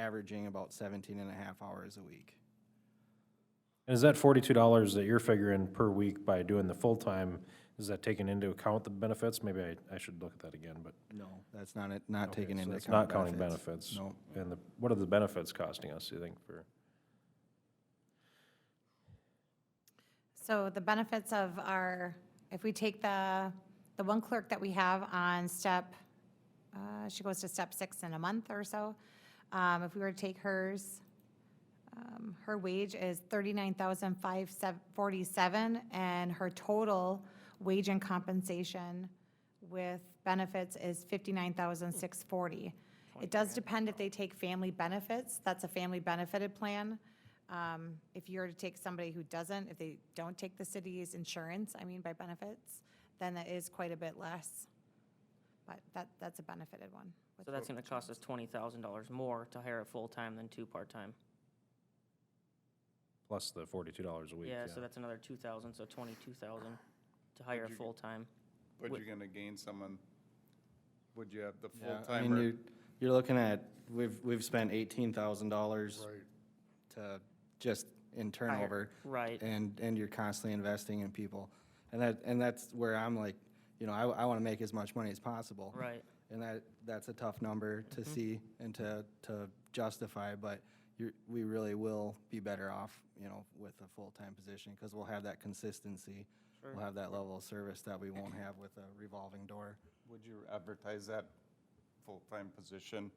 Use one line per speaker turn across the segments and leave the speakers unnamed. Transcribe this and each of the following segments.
averaging about 17 and a half hours a week.
And is that forty-two dollars that you're figuring per week by doing the full-time, is that taking into account the benefits? Maybe I, I should look at that again, but.
No, that's not, it. not
Okay,
taken
so
into
that's
account.
Not counting benefits.
No.
And the, what are the benefits costing us, do you think, for?
So the benefits of our, if we take the, the one clerk that we have on step, uh, she goes to step six in a month or so. Um, If we were to take hers, um, her wage is thirty-nine thousand five forty-seven, and her total wage and compensation with benefits is fifty-nine thousand six forty. It does depend if they take family benefits, that's a family benefited plan. Um, If you're to take somebody who doesn't, if they don't take the city's insurance, I mean by benefits, then that is quite a bit less. But that, that's a benefited one. with
So that's gonna cost us twenty thousand dollars more to hire a full-time than two part-time.
Plus the forty-two dollars a week,
Yeah, so
yeah.
that's another two thousand, so twenty-two thousand to hire a
you-
full-time.
But
Would-
you're gonna gain someone, would you have the
Yeah,
full
I mean,
timer?
you're, you're looking at, we've, we've spent eighteen thousand dollars
Right.
to, just in turnover.
Right,
And, and you're constantly investing in people. And that, and that's where I'm like, you know, I, I want to make as much money as possible.
right.
And that, that's a tough number to
Mm-hmm.
see and to, to justify, but you're, we really will be better off, you know, with a full-time position, because we'll have that consistency. We'll have that level of service that we won't have with a revolving door.
Would you advertise that full-time position?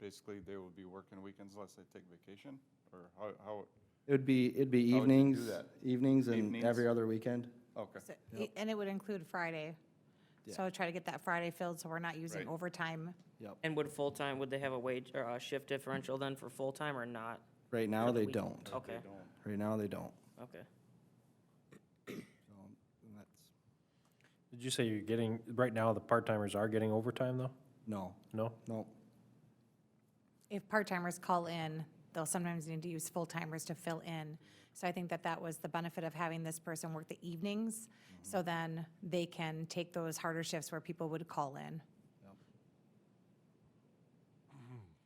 Basically, they will be working weekends unless they take vacation, or how, how,
It would be, it'd be
How would you do
evenings,
that?
evenings and
Evenings?
every other weekend.
okay.
So- And it would include Friday. So try to get that Friday filled, so we're not using
Right.
overtime.
Yep.
And would full-time, would they have a wage or a shift differential then for full-time or not?
Right now,
For the
they
week-
don't.
Okay,
Right now, they don't.
okay.
So, and that's,
Did you say you're getting, right now, the part-timers are getting overtime, though?
no,
No?
no.
If part-timers call in, they'll sometimes need to use full-timers to fill in. So I think that that was the benefit of having this person work the evenings,
Mm-hmm.
so then they can take those harder shifts where people would call in.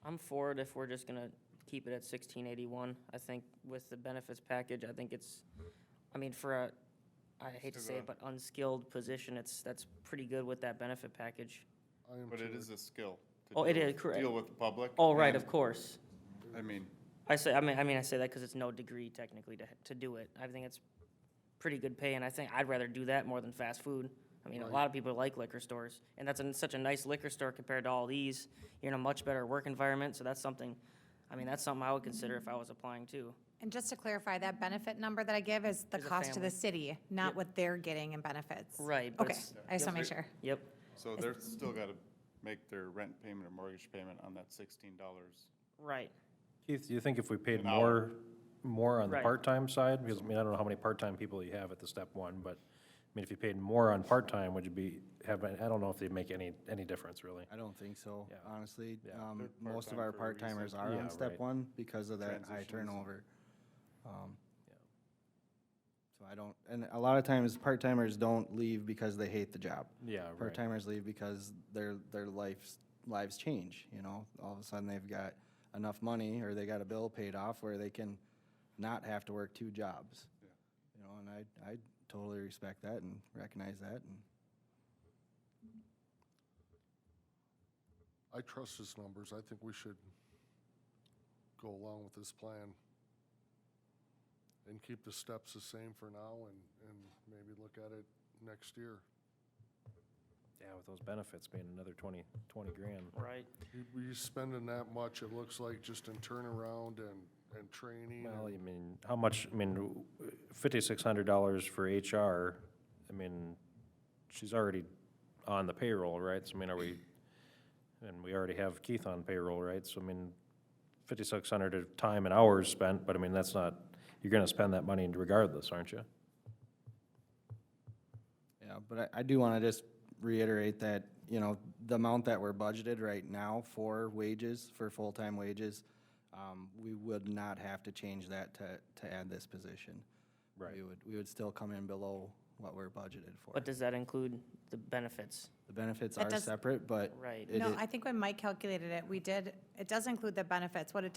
I'm for it if we're just gonna keep it at sixteen eighty-one. I think with the benefits package, I think it's, I mean, for a, I hate to say it, but unskilled position, it's, that's pretty good with that benefit package.
But it is a skill. to
Oh, it
deal
is,
with-
correct.
Deal with the public.
Oh, right,
and,
of course.
I mean,
I say, I mean, I mean, I say that because it's no degree technically to, to do it. I think it's pretty good pay, and I think I'd rather do that more than fast food. I mean, a lot of people like liquor stores, and that's an such a nice liquor store compared to all these. You're in a much better work environment, so that's something, I mean, that's something I would consider if I was applying too.
And just to clarify, that benefit number that I give is the
Is a
cost to the
family.
city, not what they're getting in benefits.
Right, but
Okay,
it's-
I just want to make sure.
Yep,
so they're still gotta make their rent payment or mortgage payment on that sixteen dollars.
right.
Keith, do you think if we paid
An hour.
more, more on the
Right.
part-time side? Because, I mean, I don't know how many part-time people you have at the step one, but, I mean, if you paid more on part-time, would you be, have, I don't know if they'd make any, any difference, really.
I don't think so,
Yeah.
honestly.
Yeah.
Um,
They're
most of
part-time
our
for a reason.
part-timers are
Yeah,
on step
right.
one because of that high
Transitions.
turnover. Um, So I don't, and a lot of times, part-timers don't leave because they hate the job.
Yeah, right.
Part-timers leave because their, their lives, lives change, you know? All of a sudden, they've got enough money or they got a bill paid off where they can not have to work two jobs. You know, and I, I totally respect that and recognize that and.
I trust his numbers. I think we should go along with this plan and keep the steps the same for now and, and maybe look at it next year.
Yeah, with those benefits being another twenty, twenty grand.
Right.
You- Were you spending that much, it looks like, just in turnaround and, and training?
Well,
and-
I mean, how much, I mean, fifty-six hundred dollars for HR, I mean, she's already on the payroll, right? So, I mean, are we, and we already have Keith on payroll, right? So, I mean, fifty-six hundred of time and hours spent, but I mean, that's not, you're gonna spend that money regardless, aren't you?
Yeah, but I, I do want to just reiterate that, you know, the amount that we're budgeted right now for wages, for full-time wages, um, we would not have to change that to, to add this position.
Right.
We would, we would still come in below what we're budgeted for.
But does that include the benefits?
The benefits
That
are
does-
separate, but.
Right.
it
No,
is-
I think when Mike calculated it, we did, it does include the benefits. What it